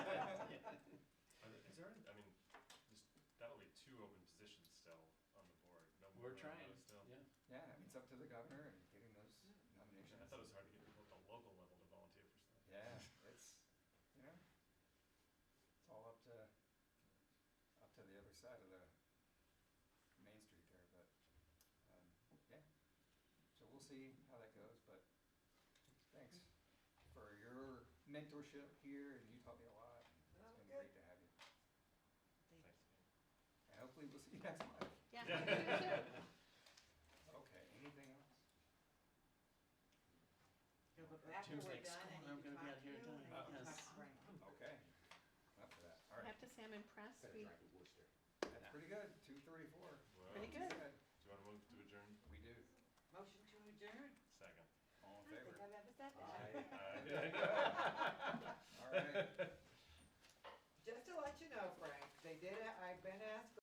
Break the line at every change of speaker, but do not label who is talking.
We're
around
trying,
those still.
yeah.
Yeah, I mean, it's up to the governor and getting those
I
nominations.
thought it was hard to get people at the local level to volunteer for stuff.
Yeah, it's, you know, it's all up to, up to the other side of the main street there, but, um, yeah. So we'll see how that goes, but thanks for your mentorship here and you taught me a lot. and It's been great to have you.
Thank
Thanks,
And hopefully we'll see you next month.
Yeah.
Okay, anything else?
Go back
After
Jim's
we're
like,
done
"Screw it, I'm
and you can
gonna be
talk
out
to
here at dinner."
you and then you can
Yes.
talk to Frank.
Okay, enough of that, all right.
I have to say I'm impressed.
Better
We,
drive to Worcester.
That's pretty good, two thirty-four.
Well,
Pretty
do
good.
you want to move to adjourn?
We do,
Motion to adjourn?
Second.
all in
I don't
favor.
think I've ever said that.
I-
Uh,
All right.